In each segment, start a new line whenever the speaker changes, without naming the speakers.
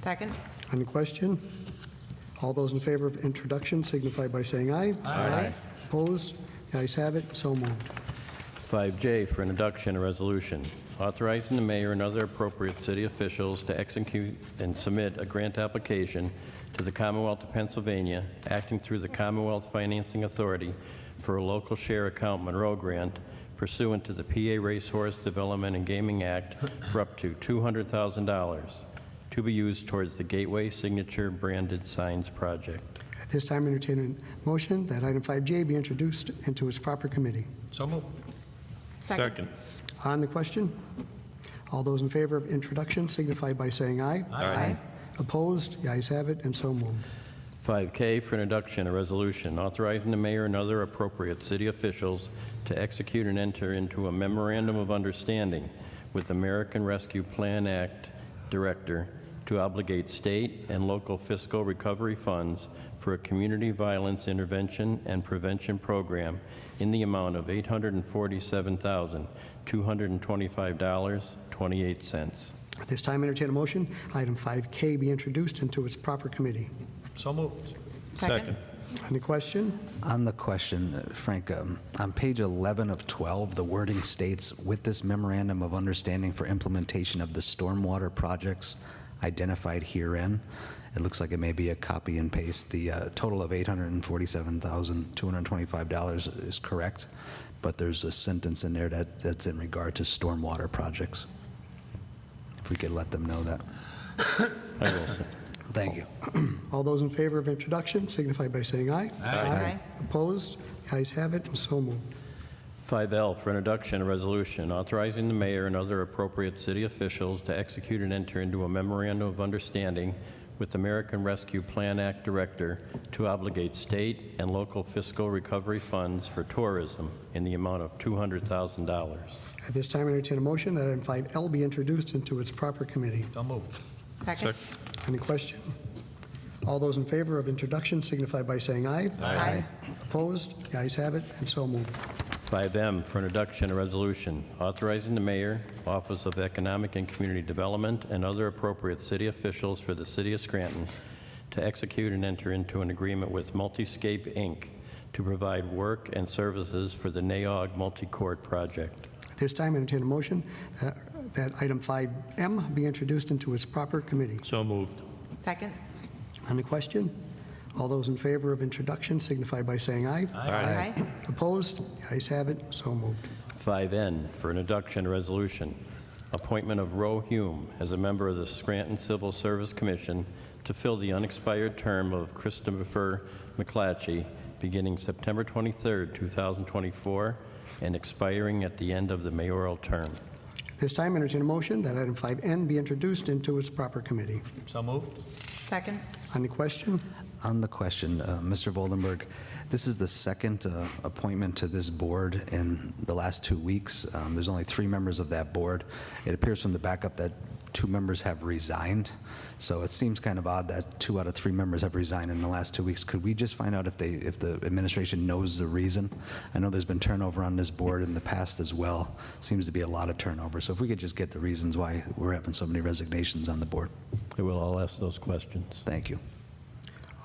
Second?
On the question? All those in favor of introduction signify by saying aye. Aye. Opposed? The ayes have it, so moved.
5J for introduction, a resolution authorizing the mayor and other appropriate city officials to execute and submit a grant application to the Commonwealth of Pennsylvania, acting through the Commonwealth Financing Authority for a local share account Monroe grant pursuant to the PA Racehorse Development and Gaming Act for up to $200,000 to be used towards the Gateway Signature Branded Signs Project.
At this time, entertain a motion that item 5J be introduced into its proper committee.
So moved.
On the question? All those in favor of introduction signify by saying aye.
Aye.
Opposed? The ayes have it, and so moved.
5K for introduction, a resolution authorizing the mayor and other appropriate city officials to execute and enter into a memorandum of understanding with American Rescue Plan Act Director to obligate state and local fiscal recovery funds for a community violence intervention and prevention program in the amount of $847,225.28.
At this time, entertain a motion, item 5K be introduced into its proper committee.
So moved.
Second?
On the question?
On the question, uh, Frank, um, on page 11 of 12, the wording states, "With this memorandum of understanding for implementation of the stormwater projects identified herein," it looks like it may be a copy and paste. The uh, total of $847,225 is correct, but there's a sentence in there that, that's in regard to stormwater projects. If we could let them know that.
I will se-
Thank you.
All those in favor of introduction signify by saying aye.
Aye.
Opposed? The ayes have it, and so moved.
5L for introduction, a resolution authorizing the mayor and other appropriate city officials to execute and enter into a memorandum of understanding with American Rescue Plan Act Director to obligate state and local fiscal recovery funds for tourism in the amount of $200,000.
At this time, entertain a motion that item 5L be introduced into its proper committee.
So moved.
Second?
Any question? All those in favor of introduction signify by saying aye.
Aye.
Opposed? The ayes have it, and so moved.
5M for introduction, a resolution authorizing the mayor, Office of Economic and Community Development, and other appropriate city officials for the city of Scranton to execute and enter into an agreement with Multiscape, Inc. to provide work and services for the NAOG multi-court project.
At this time, entertain a motion that- that item 5M be introduced into its proper committee.
So moved.
Second?
On the question? All those in favor of introduction signify by saying aye.
Aye.
Opposed? The ayes have it, so moved.
5N for introduction resolution, appointment of Roe Hume as a member of the Scranton Civil Service Commission to fill the unexpired term of Christopher McClatchy, beginning September 23rd, 2024, and expiring at the end of the mayoral term.
At this time, entertain a motion that item 5N be introduced into its proper committee.
So moved.
Second?
On the question?
On the question, uh, Mr. Voldenberg, this is the second uh, appointment to this board in the last two weeks. Um, There's only three members of that board. It appears from the backup that two members have resigned, so it seems kind of odd that two out of three members have resigned in the last two weeks. Could we just find out if they, if the administration knows the reason? I know there's been turnover on this board in the past as well. Seems to be a lot of turnover, so if we could just get the reasons why we're having so many resignations on the board.
I will all ask those questions.
Thank you.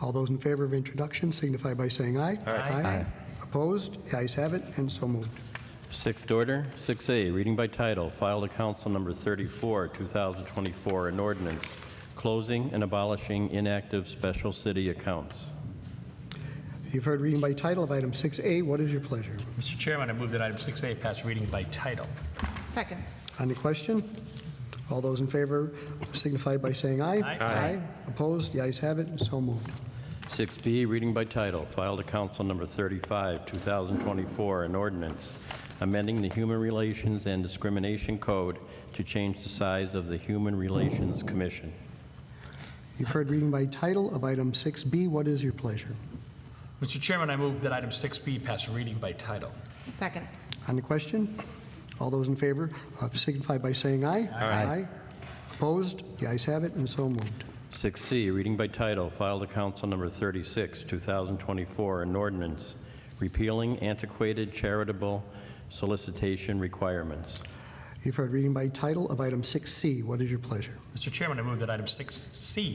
All those in favor of introduction signify by saying aye.
Aye.
Opposed? The ayes have it, and so moved.
Sixth order, 6A, reading by title, filed to council number 34, 2024, an ordinance closing and abolishing inactive special city accounts.
You've heard reading by title of item 6A. What is your pleasure?
Mr. Chairman, I move that item 6A pass reading by title.
Second?
On the question? All those in favor signify by saying aye.
Aye.
Aye.
Opposed? The ayes have it, and so moved.
6B, reading by title, filed to council number 35, 2024, an ordinance amending the Human Relations and Discrimination Code to change the size of the Human Relations Commission.
You've heard reading by title of item 6B. What is your pleasure?
Mr. Chairman, I move that item 6B pass reading by title.
Second?
On the question? All those in favor of signify by saying aye.
Aye.
Opposed? The ayes have it, and so moved.
6C, reading by title, filed to council number 36, 2024, an ordinance repealing antiquated charitable solicitation requirements.
You've heard reading by title of item 6C. What is your pleasure?
Mr. Chairman, I move that item 6C